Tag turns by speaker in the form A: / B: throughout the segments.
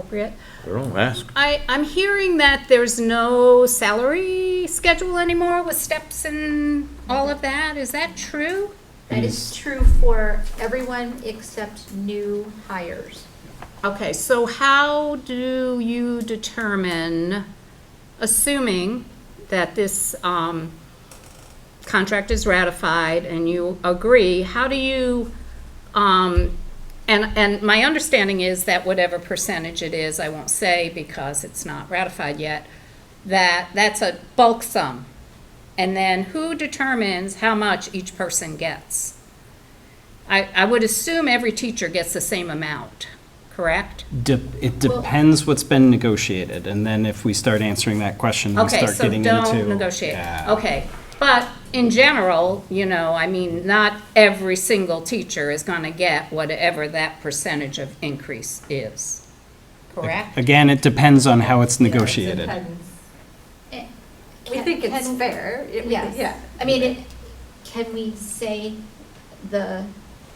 A: appropriate.
B: Don't ask.
A: I, I'm hearing that there's no salary schedule anymore with steps and all of that. Is that true?
C: Mm.
D: That is true for everyone except new hires.
A: Okay, so how do you determine, assuming that this um, contract is ratified and you agree, how do you, um, and, and my understanding is that whatever percentage it is, I won't say because it's not ratified yet, that, that's a bulk sum. And then who determines how much each person gets? I, I would assume every teacher gets the same amount, correct?
C: De- It depends what's been negotiated, and then if we start answering that question, we
A: Okay,
C: start
A: so
C: getting into.
A: don't negotiate.
C: Yeah.
A: Okay, but in general, you know, I mean, not every single teacher is gonna get whatever that percentage of increase is, correct?
C: Again, it depends on how it's negotiated.
E: We think it's
D: Eh, Can-
E: fair. It- we-
D: Yes.
E: Yeah,
D: I mean, it- can we say the,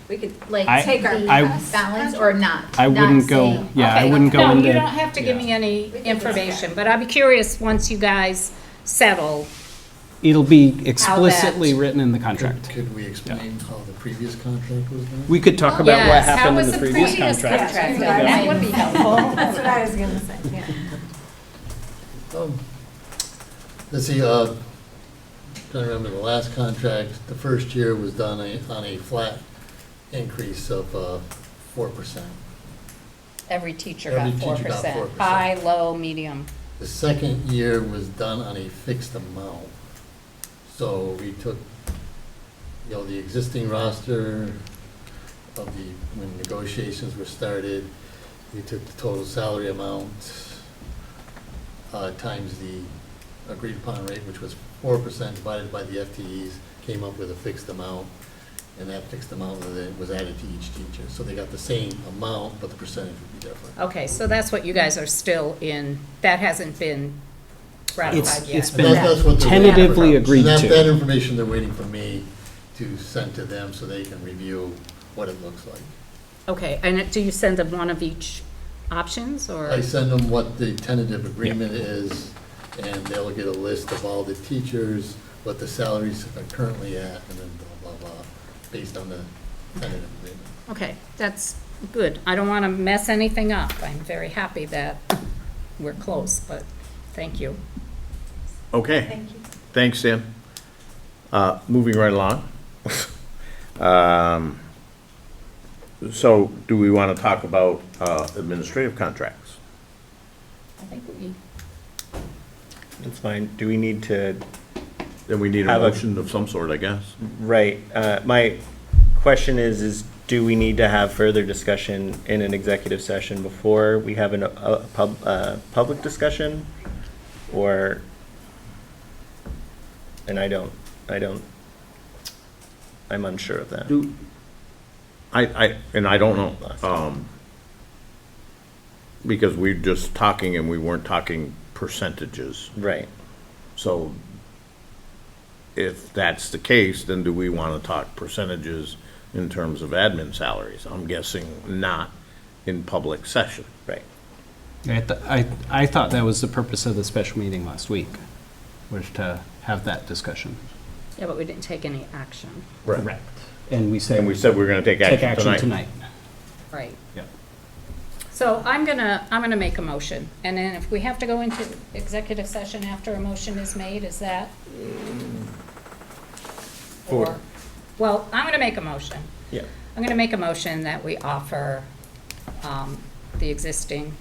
E: we could,
D: like,
C: I-
D: take our
C: I-
D: balance or not?
C: I
D: Not
C: wouldn't go,
D: saying-
C: yeah, I
A: Okay,
C: wouldn't go
A: No, you don't
C: into,
A: have to give me any
E: We can discuss.
A: information, but I'd be curious, once you guys settle,
C: it'll be explicitly written in the
F: Could,
C: contract.
F: could we explain how the previous contract was done?
C: We could talk about what
A: yes, how
C: happened in
A: was
C: the
A: the
C: previous
A: previous
C: contract.
A: contract?
E: Yeah.
A: That would be helpful.
E: that's what I was gonna say, yeah.
F: Um, Let's see, uh, trying to remember the last contract, the first year was done a- on a flat increase of, uh, four percent.
A: Every teacher
F: Every
A: got four
F: teacher got
A: percent,
F: 4%.
A: high, low, medium.
F: The second year was done on a fixed amount. So we took, you know, the existing roster of the, when negotiations were started, we took the total salary amount, uh, times the agreed upon rate, which was four percent divided by the FTEs, came up with a fixed amount. And that fixed amount was then- was added to each teacher. So they got the same amount, but the percentage would be different.
A: Okay, so that's what you guys are still in, that hasn't been ratified
C: It's,
A: yet.
C: it's
F: And that-
C: been
F: that's what they're waiting for.
C: tentatively agreed
F: That, that
C: to.
F: information they're waiting for me to send to them so they can review what it looks like.
A: Okay, and it- do you send them one of each options,
F: I
A: or?
F: send them what the tentative agreement is, and they'll get a list of all the teachers, what the salaries are currently at, and then blah, blah, blah, based on the tentative agreement.
A: Okay, that's good. I don't want to mess anything up. I'm very happy that we're close, but thank you.
B: Okay. Thanks, Sam. Uh, Moving right along. Um, So do we want to talk about uh, administrative contracts?
A: I think we,
G: That's fine. Do we need to,
B: Then we need a
G: Have a-
B: motion of some sort, I guess.
G: right, uh, my question is, is do we need to have further discussion in an executive session before we have an, a, a pub, uh, public discussion? Or, and I don't, I don't, I'm unsure of that.
B: Do, I, I, and I don't know. um, Because we're just talking and we weren't talking percentages.
G: Right.
B: So if that's the case, then do we want to talk percentages in terms of admin salaries? I'm guessing not in public session.
G: Right.
C: I, th- I, I thought that was the purpose of the special meeting last week, was to have that discussion.
A: yeah, but we didn't take any action.
C: Correct. And we said.
B: And we said we are going to take
C: Take
B: action
C: action
B: tonight.
C: tonight.
A: Right.
C: Yep.
A: So I'm gonna, I'm gonna make a motion, and then if we have to go into executive session after a motion is made, is that? Or, well, I'm gonna make a motion.
G: Yeah.
A: I'm gonna make a motion that we offer um, the existing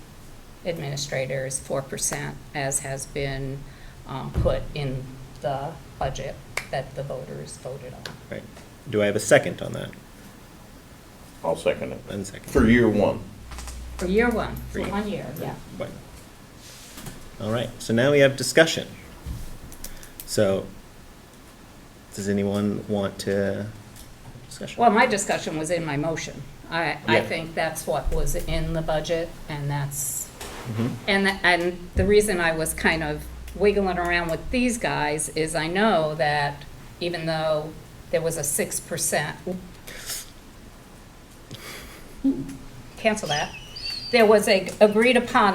A: administrators four percent as has been um, put in the budget that the voters voted on.
G: Right. Do I have a second on that?
B: I'll second it.
G: One second.
B: For year one.
A: For year one, for
G: Three.
A: one year, yeah.
G: Right. All right, so now we have discussion. So, does anyone want to discussion?
A: Well, my discussion was in my motion. I, I
G: Yeah.
A: think that's what was in the budget, and that's,
G: Mm-hmm.
A: and, the- and the reason I was kind of wiggling around with these guys is I know that even though there was a six percent, cancel that, there was a agreed upon